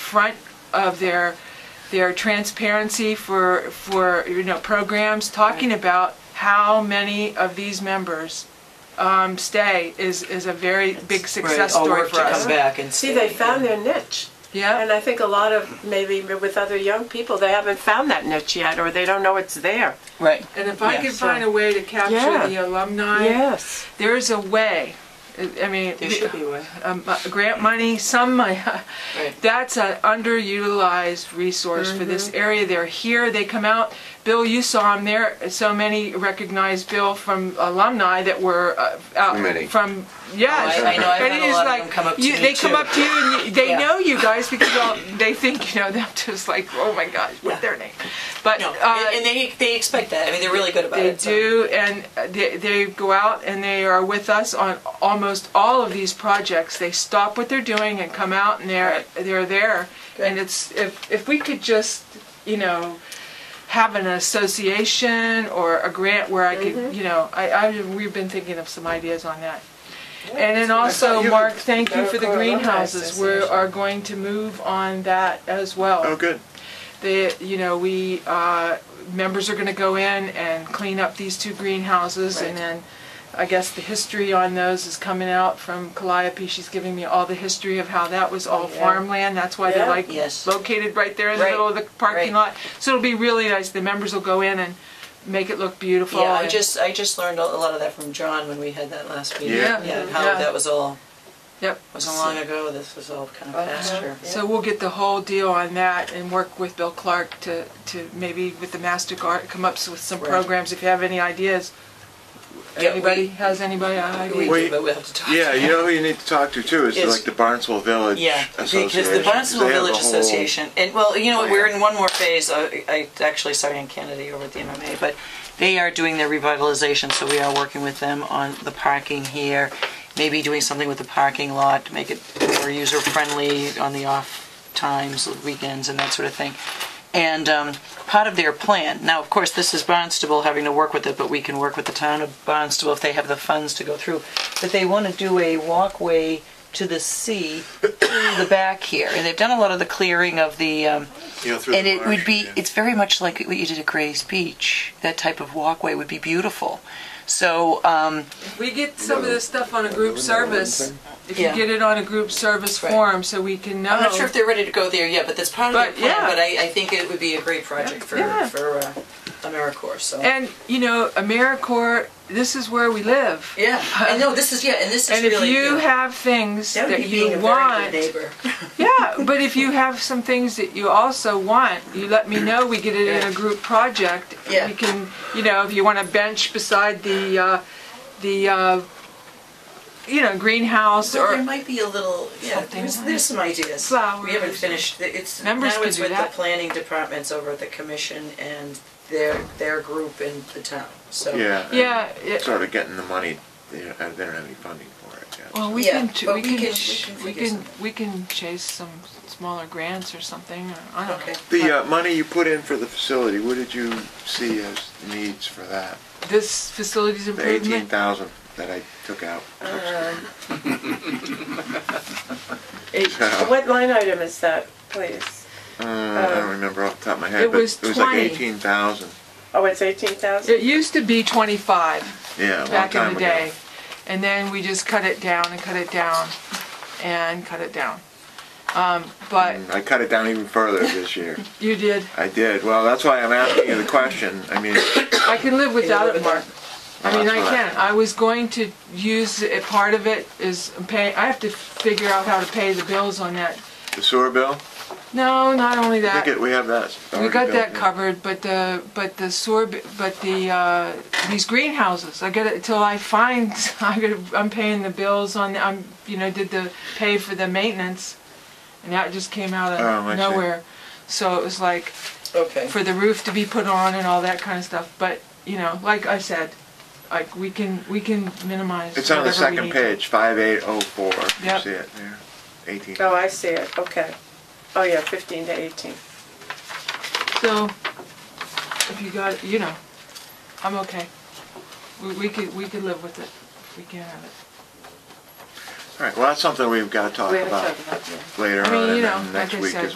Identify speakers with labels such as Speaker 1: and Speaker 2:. Speaker 1: front of their, their transparency for, for, you know, programs, talking about how many of these members um, stay is, is a very big success
Speaker 2: Right, all
Speaker 1: story
Speaker 2: work
Speaker 1: for
Speaker 2: To
Speaker 1: us.
Speaker 2: come back and
Speaker 3: See, they
Speaker 2: stay.
Speaker 3: found their niche. And
Speaker 1: Yeah,
Speaker 3: I think a lot of, maybe with other young people, they haven't found that niche yet, or they don't know it's there.
Speaker 2: right.
Speaker 1: and if I
Speaker 2: Yeah,
Speaker 1: could
Speaker 3: so-
Speaker 1: find a way to
Speaker 3: Yeah.
Speaker 1: capture the alumni,
Speaker 3: Yes.
Speaker 1: there is a way. I- I mean.
Speaker 2: There should be a way.
Speaker 1: um, uh, grant money, some money.
Speaker 2: Right.
Speaker 1: That's an underutilized resource for this
Speaker 2: Mm-hmm.
Speaker 1: area. They're here, they come out. Bill, you saw them there. So many recognized Bill from alumni that were uh, out
Speaker 4: Many.
Speaker 1: from, yes.
Speaker 2: Oh, I- I know, I've
Speaker 1: And
Speaker 2: had
Speaker 1: it
Speaker 2: a
Speaker 1: is
Speaker 2: lot of
Speaker 1: like,
Speaker 2: them come up to
Speaker 1: you-
Speaker 2: me,
Speaker 1: They come
Speaker 2: too.
Speaker 1: up to you and you- they
Speaker 2: Yeah.
Speaker 1: know you guys because well, they think you know them, just like, oh my gosh, what's their name? But.
Speaker 2: No,
Speaker 1: uh,
Speaker 2: and- and they they expect that. I mean, they're really good about
Speaker 1: they
Speaker 2: it. so-
Speaker 1: do, and they, they go out and they are with us on almost all of these projects. They stop what they're doing and come out, and they're
Speaker 2: Right.
Speaker 1: they're there. And
Speaker 2: Good.
Speaker 1: it's if if we could just you know have an association or a grant where I could
Speaker 2: Mm-hmm.
Speaker 1: you know I, I we've been thinking of some ideas on that. And then also,
Speaker 4: You
Speaker 1: Mark,
Speaker 4: could-
Speaker 1: thank you for the
Speaker 3: Maricopa Alumni
Speaker 1: greenhouses. We
Speaker 3: Association.
Speaker 1: are going to move on that as well
Speaker 4: Oh, good.
Speaker 1: they, you know, we, uh, members are gonna go in and clean up these two greenhouses, and
Speaker 2: Right.
Speaker 1: then, I guess the history on those is coming out from Calliope, she's giving me all the history of how that was all
Speaker 3: yeah.
Speaker 1: farmland, that's why they're
Speaker 3: Yeah.
Speaker 1: like
Speaker 2: Yes.
Speaker 1: located right there in the
Speaker 2: Right.
Speaker 1: middle of the parking
Speaker 2: Right.
Speaker 1: lot. So it'll be really nice, the members will go in and make it look beautiful.
Speaker 2: Yeah, I
Speaker 1: and-
Speaker 2: just I just learned a a lot of that from John when we had that last meeting.
Speaker 4: Yeah.
Speaker 2: yeah how
Speaker 1: Yeah.
Speaker 2: that was all
Speaker 1: Yep,
Speaker 2: wasn't long ago. This was all kind of pasture.
Speaker 1: so we'll get the whole deal on that and work with Bill Clark to, to maybe with the MasterCard, come up with some
Speaker 2: Right.
Speaker 1: programs, if you have any ideas.
Speaker 2: Yeah, we-
Speaker 1: Anybody, has anybody an idea?
Speaker 2: We,
Speaker 4: Wait.
Speaker 2: but we have to talk.
Speaker 4: Yeah,
Speaker 2: to
Speaker 4: you know who you need to talk to too is
Speaker 2: Yes.
Speaker 4: like the Barnesville Village
Speaker 2: Yeah,
Speaker 4: Association.
Speaker 2: because the Barnesville
Speaker 4: They have a
Speaker 2: Village
Speaker 4: whole- Oh,
Speaker 2: Association, and well, you know, what, we're
Speaker 4: plan.
Speaker 2: in one more phase. I, I actually started in Kennedy over at the MMA, but they are doing their revitalization, so we are working with them on the parking here, maybe doing something with the parking lot to make it more user friendly on the off times, weekends, and that sort of thing. And um, part of their plan, now of course this is Barnstable having to work with it, but we can work with the town of Barnstable if they have the funds to go through. But they want to do a walkway to the sea through the back here, and they've done a lot of the clearing of the. Um,
Speaker 4: you know, through
Speaker 2: and
Speaker 4: the
Speaker 2: it would
Speaker 4: marsh,
Speaker 2: be
Speaker 4: yeah.
Speaker 2: it's very much like what you did at Gray's Beach. That type of walkway would be beautiful. So um,
Speaker 1: We get some of this stuff on a group service, if you
Speaker 2: Yeah.
Speaker 1: get it on a group service
Speaker 2: Right.
Speaker 1: form, so we can know.
Speaker 2: I'm not sure if they're ready to go there yet, but that's part of
Speaker 1: Oh. But,
Speaker 2: their plan.
Speaker 1: yeah.
Speaker 2: But I, I think it would be a great project for
Speaker 1: Yeah.
Speaker 2: for uh, AmeriCorps. So.
Speaker 1: And, you know, AmeriCorps, this is where we live.
Speaker 2: yeah, I know this is yeah, and this is
Speaker 1: And if
Speaker 2: really
Speaker 1: you
Speaker 2: yeah.
Speaker 1: have things
Speaker 2: that would
Speaker 1: that
Speaker 2: be being
Speaker 1: you
Speaker 2: a
Speaker 1: want.
Speaker 2: very good neighbor.
Speaker 1: Yeah, but if you have some things that you also want, you let me know, we get it in a group project.
Speaker 2: Yeah.
Speaker 1: We can, you know, if you want a bench beside the, uh, the, uh, you know, greenhouse
Speaker 2: Well, there
Speaker 1: or,
Speaker 2: might be a little, yeah, there's, there's some ideas.
Speaker 1: Flowers.
Speaker 2: We haven't finished, it's, now
Speaker 1: Members could
Speaker 2: it's
Speaker 1: do
Speaker 2: with the
Speaker 1: that.
Speaker 2: planning departments over at the commission and their, their group in the town, so.
Speaker 4: Yeah. and
Speaker 1: yeah. it-
Speaker 4: Sort of getting the money. They don't they don't have any funding for it yet.
Speaker 1: Well, we
Speaker 2: Yeah,
Speaker 1: can, ch-
Speaker 2: but
Speaker 1: we
Speaker 2: we
Speaker 1: can,
Speaker 2: can-
Speaker 1: ch- we
Speaker 2: we can figure
Speaker 1: can, we can chase some smaller grants or something, or, I don't know.
Speaker 2: Okay.
Speaker 4: the uh, money you put in for the facility, what did you see as needs for that?
Speaker 1: This facilities
Speaker 4: The eighteen
Speaker 1: improvement, Uh,
Speaker 4: thousand that I took out. So,
Speaker 3: What line item is that, please?
Speaker 4: uh, I don't remember off the top of my head,
Speaker 1: It
Speaker 4: but
Speaker 1: was
Speaker 4: it was like
Speaker 1: 20.
Speaker 4: eighteen thousand.
Speaker 3: Oh, it's 18,000?
Speaker 1: it used to be twenty-five
Speaker 4: Yeah, a long
Speaker 1: back
Speaker 4: time
Speaker 1: in the
Speaker 4: ago.
Speaker 1: day. And then we just cut it down and cut it down and cut it down. Um, but
Speaker 4: And Mm, I cut it down even further this year.
Speaker 1: you did,
Speaker 4: I did. Well, that's why I'm asking you the question. I mean,
Speaker 1: I can live without
Speaker 2: live
Speaker 1: it,
Speaker 2: without
Speaker 1: Mark. I mean, I
Speaker 4: that's what I-
Speaker 1: can, I was going to use, it- part of it is pay, I have to figure out how to pay the bills on that.
Speaker 4: the sewer bill.
Speaker 1: No, not only that.
Speaker 4: I think it, we have that.
Speaker 1: We
Speaker 4: already
Speaker 1: got
Speaker 4: built
Speaker 1: that
Speaker 4: in.
Speaker 1: covered, but the, but the sewer, b- but the, uh, these greenhouses, I gotta, till I find, I gotta, I'm paying the bills on, I'm, you know, did the, pay for the maintenance, and that just came out
Speaker 4: Oh, I
Speaker 1: of
Speaker 4: see.
Speaker 1: nowhere. So it was like,
Speaker 2: Okay.
Speaker 1: for the roof to be put on and all that kind of stuff, but, you know, like I said, like, we can, we can minimize.
Speaker 4: It's on the
Speaker 1: whatever we
Speaker 4: second
Speaker 1: need.
Speaker 4: page, five eight oh four. You
Speaker 1: Yep.
Speaker 4: see it there? Eighteen.
Speaker 3: Oh, I see it, okay. Oh, yeah, 15 to 18.
Speaker 1: So, if you got, you know, I'm okay. We, we could, we could live with it, we can have it.
Speaker 4: All right, well, that's something we've got to talk
Speaker 3: We have to
Speaker 4: about
Speaker 3: talk about that.
Speaker 4: later
Speaker 1: I mean,
Speaker 4: on
Speaker 1: you
Speaker 4: and
Speaker 1: know,
Speaker 4: then
Speaker 1: like
Speaker 4: next
Speaker 1: I
Speaker 4: week
Speaker 1: said,
Speaker 4: as